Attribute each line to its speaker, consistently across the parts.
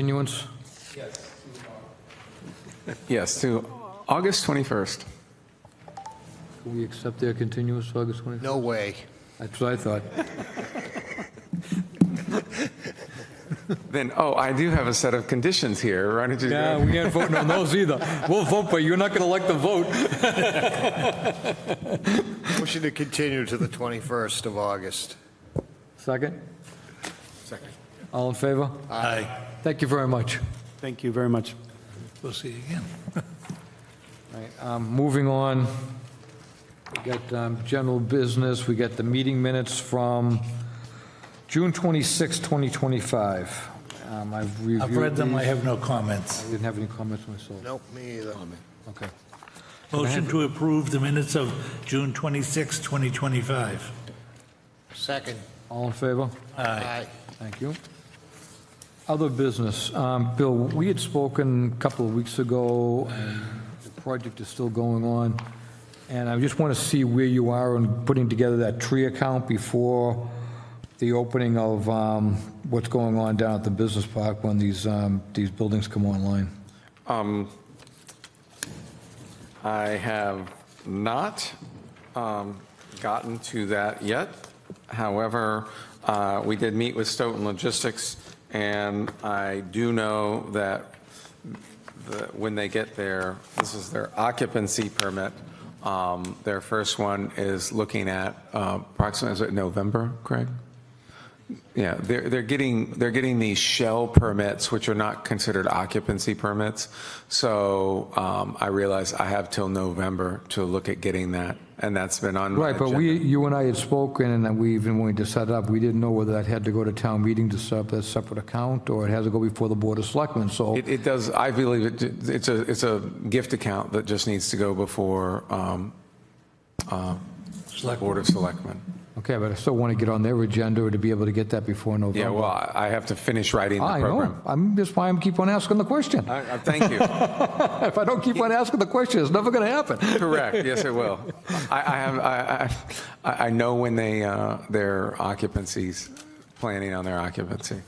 Speaker 1: Continuance?
Speaker 2: Yes, to August 21st.
Speaker 1: Can we accept their continuance, August 21st?
Speaker 3: No way.
Speaker 1: That's what I thought.
Speaker 2: Then, oh, I do have a set of conditions here. Why don't you?
Speaker 1: Yeah, we ain't voting on those either. We'll vote, but you're not going to like the vote.
Speaker 3: Motion to continue to the 21st of August.
Speaker 1: Second? Second. All in favor? Aye. Thank you very much.
Speaker 4: Thank you very much.
Speaker 5: We'll see you again.
Speaker 1: All right, um, Moving on, we got um, general business, we got the meeting minutes from June 26, 2025. Um, I've reviewed
Speaker 5: I've read them, I
Speaker 1: these.
Speaker 5: have no comments.
Speaker 1: I didn't have any comments myself.
Speaker 3: Nope, me either.
Speaker 1: Okay.
Speaker 5: Motion to approve the minutes of June 26, 2025.
Speaker 3: Second.
Speaker 1: All in favor?
Speaker 3: Aye.
Speaker 1: Thank you. Other business. Um, Bill, we had spoken a couple of weeks ago, and the project is still going on, and I just want to see where you are in putting together that tree account before the opening of um, what's going on down at the business park when these, um, these buildings come online.
Speaker 2: Um, I have not um, gotten to that yet. However, uh, we did meet with Stoughton Logistics, and I do know that the- when they get their, this is their occupancy permit, um, their first one is looking at uh, approximately, is it November, Craig? Yeah, they're, they're getting, they're getting these shell permits, which are not considered occupancy permits. So um, I realize I have till November to look at getting that, and that's been on my
Speaker 1: Right, but
Speaker 2: agenda.
Speaker 1: we, you and I had spoken, and we even wanted to set it up, we didn't know whether that had to go to town meeting to set up that separate account, or it has to go before the Board of Selectmen, so.
Speaker 2: It, it does, I believe it, it's a, it's a gift account that just needs to go before um, uh, Board of Selectmen.
Speaker 1: Okay, but I still want to get on their agenda or to be able to get that before November.
Speaker 2: Yeah, well, I I have to finish writing the
Speaker 1: I know,
Speaker 2: program.
Speaker 1: I'm, that's why I'm keep on asking the question.
Speaker 2: I- I Thank you.
Speaker 1: If I don't keep on asking the question, it's never going to happen.
Speaker 2: Correct, yes, it will. I, I have, I, I I know when they, uh, their occupancies, planning on their occupancy.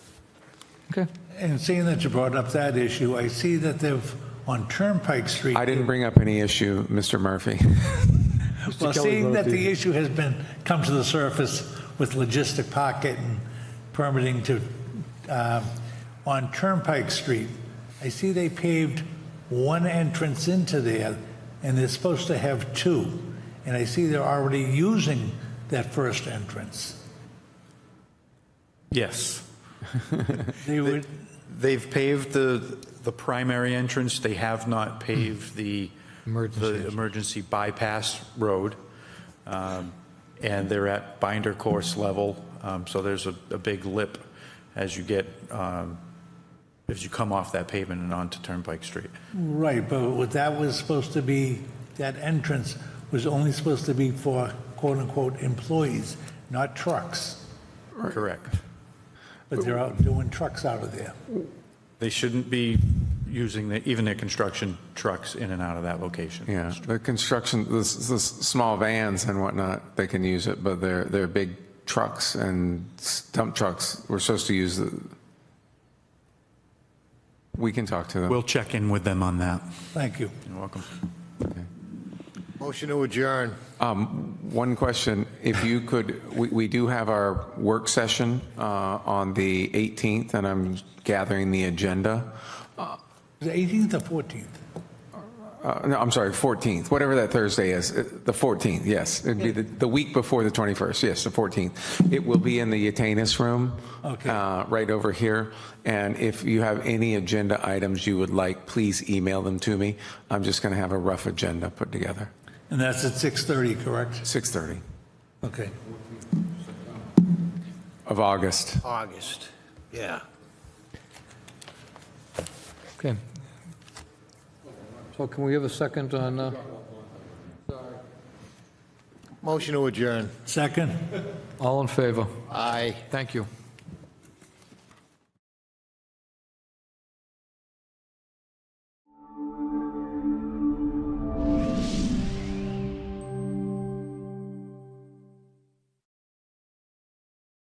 Speaker 1: Okay,
Speaker 5: And seeing that you brought up that issue, I see that they've, on Turnpike Street.
Speaker 2: I didn't bring up any issue, Mr. Murphy.
Speaker 5: Well,
Speaker 1: Kelly
Speaker 5: seeing that
Speaker 1: voted.
Speaker 5: the issue has been, come to the surface with logistic pocket and permitting to, um, on Turnpike Street, I see they paved one entrance into there, and they're supposed to have two. And I see they're already using that first entrance.
Speaker 6: Yes.
Speaker 5: They would,
Speaker 6: They've paved the, the primary entrance. They have not paved the,
Speaker 1: Emergency.
Speaker 6: the emergency bypass road. Um, And they're at binder course level, Um, so there's a, a big lip as you get, um, as you come off that pavement and onto Turnpike Street.
Speaker 5: right, but what that was supposed to be, that entrance was only supposed to be for quote-unquote employees, not trucks.
Speaker 6: Correct.
Speaker 5: But they're out doing trucks out of there.
Speaker 6: They shouldn't be using, the- even their construction trucks in and out of that location.
Speaker 2: Yeah, the construction, the, s- the s- small vans and whatnot, they can use it, but their, their big trucks and s- dump trucks, we're supposed to use the, we can talk to them.
Speaker 6: We'll check in with them on that.
Speaker 5: Thank you.
Speaker 6: You're welcome.
Speaker 3: Motion to adjourn.
Speaker 2: One question, if you could, we, we do have our work session uh, on the 18th, and I'm gathering the agenda.
Speaker 5: The 18th or 14th?
Speaker 2: Uh, No, I'm sorry, 14th, whatever that Thursday is, uh, the 14th, yes. It'd be the, the week before the 21st, yes, the 14th. It will be in the Yatanis Room.
Speaker 5: Okay.
Speaker 2: uh, Right over here. And if you have any agenda items you would like, please email them to me. I'm just going to have a rough agenda put together.
Speaker 5: And that's at 6:30, correct?
Speaker 2: 6:30
Speaker 5: Okay.
Speaker 2: of August.
Speaker 3: August. Yeah.
Speaker 1: okay. So can we have a second on, uh,
Speaker 3: Motion to adjourn.
Speaker 5: Second?
Speaker 1: all in favor?
Speaker 3: Aye.
Speaker 1: Thank you.